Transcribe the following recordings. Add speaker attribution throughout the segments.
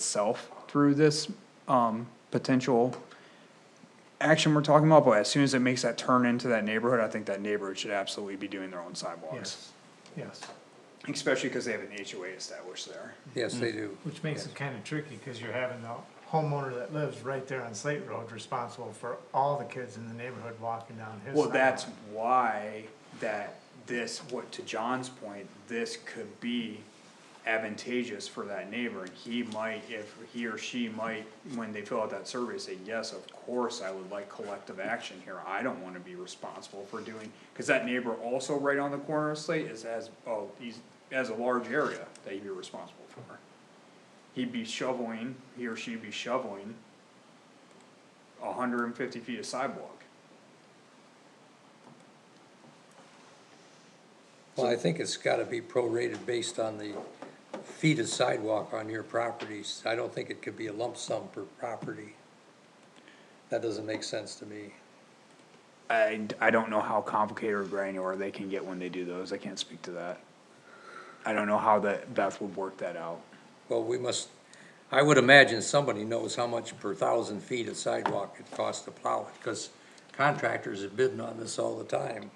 Speaker 1: itself through this um, potential action we're talking about, but as soon as it makes that turn into that neighborhood, I think that neighborhood should absolutely be doing their own sidewalks.
Speaker 2: Yes, yes,
Speaker 1: Especially because they have an HOA established there.
Speaker 3: Yes, they
Speaker 1: Mm.
Speaker 3: do.
Speaker 2: which makes it kind of tricky, because you're having the homeowner that lives right there on Slate Road responsible for all the kids in the neighborhood walking down his.
Speaker 1: Well,
Speaker 2: sidewalk.
Speaker 1: that's why that this, what to John's point, this could be advantageous for that neighbor. And he might, if he or she might, when they fill out that survey, say, yes, of course, I would like collective action here. I don't wanna be responsible for doing, cause that neighbor also right on the corner of Slate is as, oh, he's, has a large area that he'd be responsible for. He'd be shoveling, he or she'd be shoveling hundred and fifty feet of sidewalk.
Speaker 3: Well, I think it's gotta be prorated based on the feet of sidewalk on your properties. I don't think it could be a lump sum per property. That doesn't make sense to me.
Speaker 1: I, I don't know how complicated or granular they can get when they do those, I can't speak to that. I don't know how that Beth would work that out.
Speaker 3: Well, we must, I would imagine somebody knows how much per thousand feet of sidewalk it costs to plow it, cause contractors have bidden on this all the time.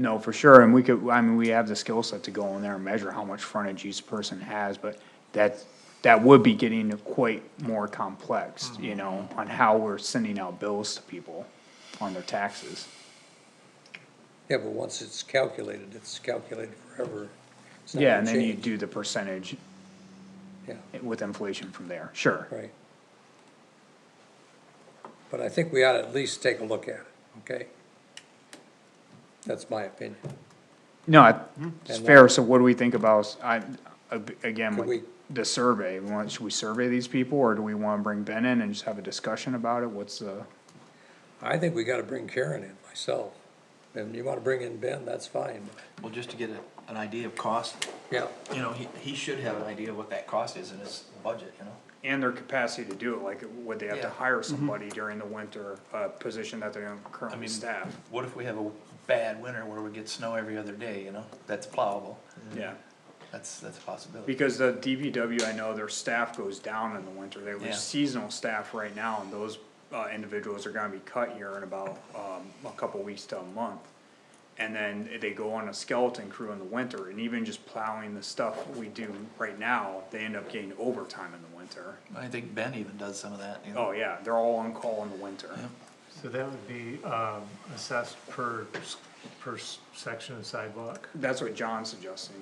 Speaker 1: No, for sure, and we could, I mean, we have the skill set to go in there and measure how much frontage each person has, but that, that would be getting quite more complex,
Speaker 3: Mm-hmm.
Speaker 1: you know, on how we're sending out bills to people on their taxes.
Speaker 3: Yeah, but once it's calculated, it's calculated forever. It's not
Speaker 1: Yeah, and
Speaker 3: gonna
Speaker 1: then you
Speaker 3: change.
Speaker 1: do the percentage
Speaker 3: Yeah,
Speaker 1: with inflation from there, sure.
Speaker 3: right. But I think we ought to at least take a look at it, okay? That's my opinion.
Speaker 1: No, I- it's
Speaker 3: And
Speaker 1: fair, so what do we think about, I, ag- again,
Speaker 3: Could
Speaker 1: with
Speaker 3: we-
Speaker 1: the survey, we want, should we survey these people, or do we wanna bring Ben in and just have a discussion about it, what's the?
Speaker 3: I think we gotta bring Karen in myself. And you wanna bring in Ben, that's fine.
Speaker 4: Well, just to get a, an idea of cost,
Speaker 3: Yeah,
Speaker 4: you know, he, he should have an idea of what that cost is in his budget, you know?
Speaker 1: And their capacity to do it, like, would they have to
Speaker 4: Yeah.
Speaker 1: hire somebody during the winter, a position that they don't
Speaker 4: I
Speaker 1: currently
Speaker 4: mean,
Speaker 1: staff?
Speaker 4: What if we have a bad winter where we get snow every other day, you know? That's plowable.
Speaker 1: Yeah,
Speaker 4: That's, that's a possibility.
Speaker 1: because the DPW, I know their staff goes down in the winter, they
Speaker 4: Yeah.
Speaker 1: lose seasonal staff right now, and those, uh, individuals are gonna be cut here in about, um, a couple weeks to a month. And then they go on a skeleton crew in the winter, and even just plowing the stuff we do right now, they end up getting overtime in the winter.
Speaker 4: I think Ben even does some of that, you know?
Speaker 1: Oh, yeah, they're all on call in the winter.
Speaker 2: So that would be, um, assessed per, s- per s- section of sidewalk.
Speaker 1: That's what John's suggesting.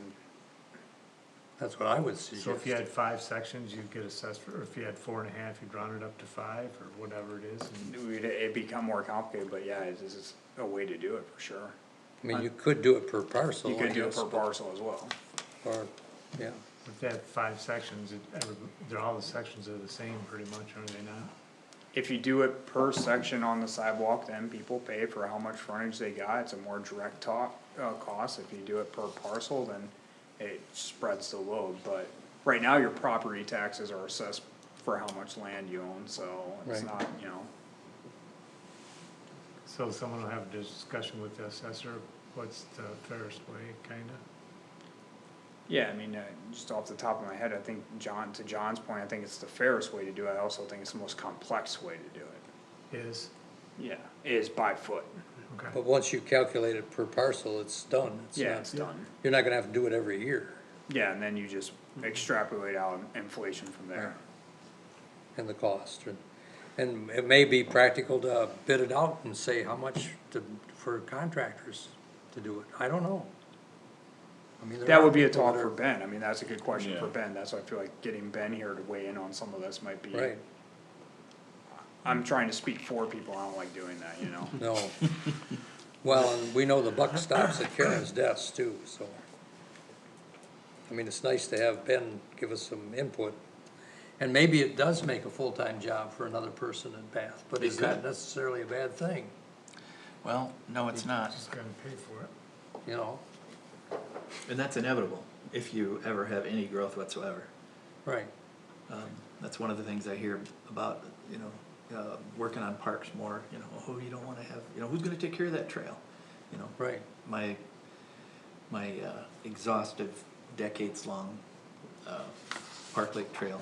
Speaker 3: that's what I would suggest.
Speaker 2: So if you had five sections, you'd get assessed, for- or if you had four and a half, you'd round it up to five, or whatever it is, and
Speaker 1: We'd, it'd become more complicated, but yeah, this is a way to do it for sure.
Speaker 3: I mean, you could do it per parcel.
Speaker 1: You could
Speaker 3: I
Speaker 1: do it
Speaker 3: guess,
Speaker 1: per parcel as well.
Speaker 3: Or, yeah,
Speaker 2: if they had five sections, it, every- they're, all the sections are the same pretty much, are they not?
Speaker 1: If you do it per section on the sidewalk, then people pay for how much frontage they got, it's a more direct top, uh, cost, if you do it per parcel, then it spreads the load, but right now, your property taxes are assessed for how much land you own, so it's
Speaker 3: Right.
Speaker 1: not, you know,
Speaker 2: So someone will have a discussion with the assessor, what's the fairest way, kinda?
Speaker 1: yeah, I mean, uh, just off the top of my head, I think John, to John's point, I think it's the fairest way to do it, I also think it's the most complex way to do it.
Speaker 2: Is,
Speaker 1: Yeah. Is by foot,
Speaker 2: okay,
Speaker 3: but once you calculate it per parcel, it's done. It's
Speaker 1: yeah,
Speaker 3: not-
Speaker 1: it's done,
Speaker 3: You're not gonna have to do it every year,
Speaker 1: yeah, and then you just extrapolate out inflation from there.
Speaker 3: and the cost, and, and it may be practical to bid it out and say how much to, for contractors to do it, I don't know. I mean, there
Speaker 1: That
Speaker 3: are
Speaker 1: would be a
Speaker 3: people
Speaker 1: talk
Speaker 3: that
Speaker 1: for
Speaker 3: are-
Speaker 1: Ben, I mean, that's a good question for Ben, that's why I feel like getting Ben here to weigh in on some of this might be.
Speaker 3: Right,
Speaker 1: I'm trying to speak for people, I don't like doing that, you know?
Speaker 3: no. Well, and we know the buck stops at Karen's desk too, so. I mean, it's nice to have Ben give us some input, and maybe it does make a full-time job for another person in Bath, but
Speaker 4: It
Speaker 3: is that
Speaker 4: could.
Speaker 3: necessarily a bad thing,
Speaker 4: Well, no, it's not.
Speaker 2: just gonna pay for it,
Speaker 3: you know?
Speaker 4: And that's inevitable if you ever have any growth whatsoever.
Speaker 3: Right,
Speaker 4: Um, that's one of the things I hear about, you know, uh, working on parks more, you know, oh, you don't wanna have, you know, who's gonna take care of that trail? You know,
Speaker 3: right,
Speaker 4: my, my uh, exhaustive decades-long uh, Park Lake Trail